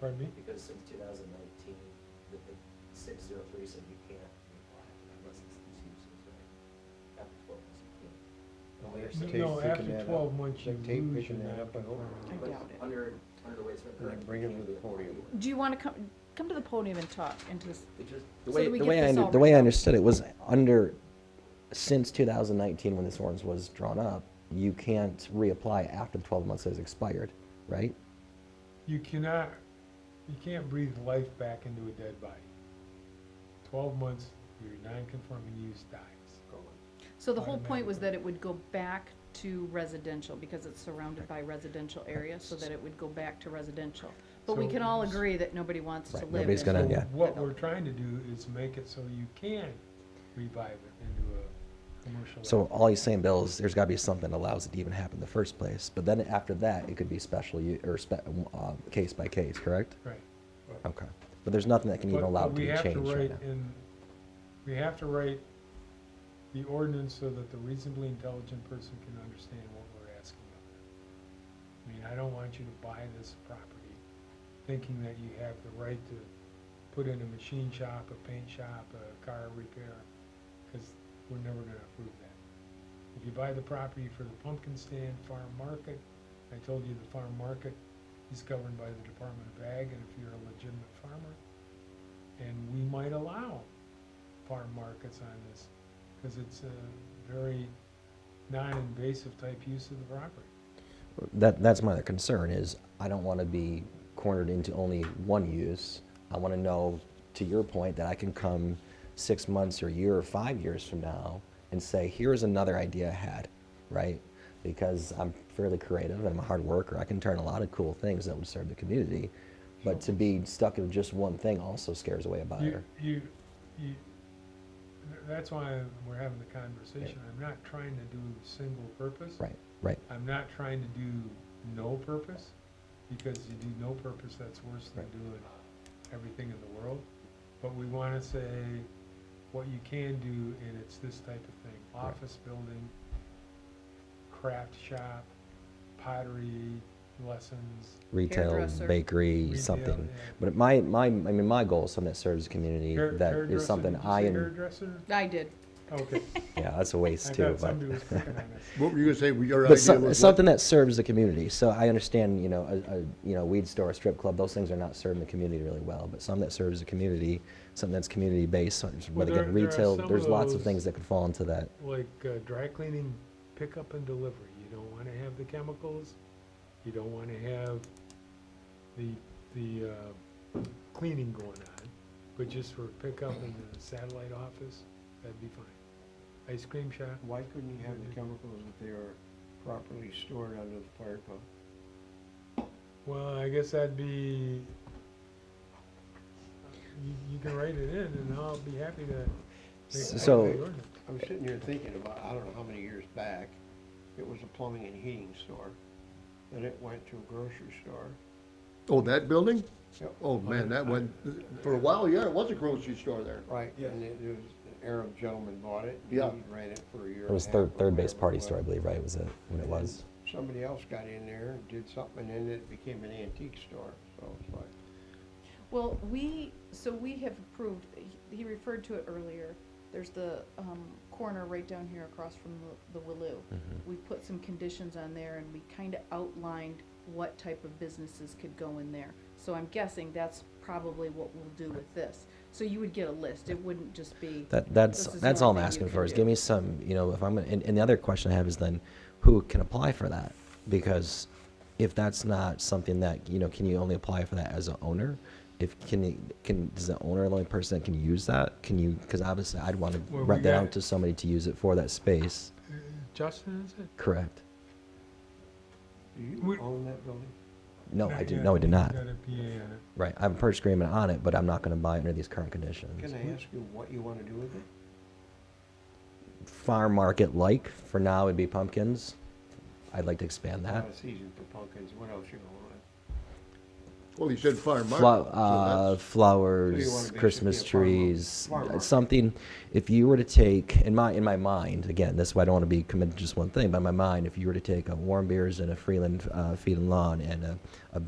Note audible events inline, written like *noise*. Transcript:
Pardon me? Because since two thousand nineteen, the, the six zero three said you can't apply unless it's these uses, right? After twelve months, you can't. No, Tape picking after that up. twelve months, you Tape lose picking your that map. up, I hope. Well, But doubt it. Under, under the way it's been Then currently. bring it you can't to the do it. podium. Do you want to come, come to the podium and talk into this? They just, The So way, that we the get way I, this under- all the way I wrapped up. understood it was under, since 2019, when this ordinance was drawn up, you can't reapply after the 12 months has expired, right? You cannot, you can't breathe life back into a dead body. Twelve months, your non-conforming use dies. So the whole point was that it would go back to residential because it's surrounded by residential area, so that it would go back to residential. But we So- can all agree that nobody wants to Right, live. nobody's in- gonna- So yeah. What we're trying to do is make it so you can revive it into a commercial. So all he's saying, Bill, is there's got to be something that allows it to even happen in the first place. But then after that, it could be special u- or spe- uh, case by case, correct? Right. Okay. But there's nothing that can even But- allow but it to we be have to changed right write now. in- We have to write the ordinance so that the reasonably intelligent person can understand what we're asking of them. I mean, I don't want you to buy this property thinking that you have the right to put in a machine shop, a paint shop, a car repair, because we're never gonna approve that. If you buy the property for the pumpkin stand, farm market, I told you the farm market is governed by the Department of Ag, and if you're a legitimate farmer, and we might allow farm markets on this, because it's a very non-invasive type use of the property. That, that's my other concern is I don't want to be cornered into only one use. I want to know, to your point, that I can come six months or a year or five years from now and say, here's another idea I had, right? Because I'm fairly creative and I'm a hard worker. I can turn a lot of cool things that would serve the community. But to be stuck in just one thing also scares away a You, buyer. you, you, th- that's why we're having the conversation. I'm not trying to do single purpose. Right, right. I'm not trying to do no purpose, because you do no purpose, that's worse than Right. doing everything in the world. But we wanna say what you can do, and it's this type of thing, Right. office building, craft shop, pottery lessons. Retail, Hairdresser. bakery, retail, something. yeah. But my, my, I mean, my goal is something that serves the community. Hair- that is hairdresser, something did you I say am. Hairdresser? I did. Okay, *laughs* Yeah, that's a I waste too. but- *laughs* thought somebody was picking on us. What were you gonna say, your But idea some, was something that serves the community. So I understand, you know, a, a you know weed store, a strip club, those things are not serving the community really well. But something that serves the community, something that's community based, Well, whether again there- there are retail, some of there's lots those- of things that could fall into that. like uh, dry cleaning pickup and delivery. You don't want to have the chemicals. You don't want to have the the uh, cleaning going on, but just for pickup in the satellite office, that'd be fine. Ice cream shop. Why couldn't you have the chemicals if they are properly stored under the fire pump? Well, I guess that'd be. You, you can write it in, and I'll be happy to. make a So- copy of the ordinance. I was sitting here thinking about, I don't know how many years back, it was a plumbing and heating store, then it went to a grocery store. Oh, that building? Yep. Oh, man, that went, for a while, yeah, it was a grocery store there. Right, and it it was, an Arab gentleman bought it, he Yeah. ran it for a year. It was and a half third or third base whatever it party was. store, I believe, right? Was it when it was? Somebody else got in there, and did something, and it became an antique store, so it's like. Well, we, so we have approved, he- he referred to it earlier, there's the um, corner right down here across from the the Willow. We put some conditions on there and we kind of outlined what type of businesses could go in there. So I'm guessing that's probably what we'll do with this. So you would get a list, it wouldn't just be. That that's This is that's all I'm one thing you asking can for is do. give me some, you know, if I'm gonna, and, and the other question I have is then, who can apply for that? Because if that's not something that you know, can you only apply for that as an owner? If can you- can is the owner the only person that can use that? Can you? Because obviously, I'd want to Well, we rent that got- out to somebody to use it for that space. Uh, Justin, is it? Correct? Do We- you own that building? No, Not I do. yet. No, I do not. Got a PA on it. Right. I'm purchase agreement on it, but I'm not going to buy it under these current Can conditions. I ask you what you wanna do with it? Farm market like for now, it'd be pumpkins. I'd like to expand that. Not a season for pumpkins, what else you gonna want? Well, he said farm market. Flo- uh, so that's- So you wanna flowers, basically Christmas be a farm mar- trees, farm uh, market. something. If you were to take in my in my mind again, that's why I don't want to be committed to just one thing. But in my mind, if you were to take a warm beers and a Freeland uh, feed and lawn and a, a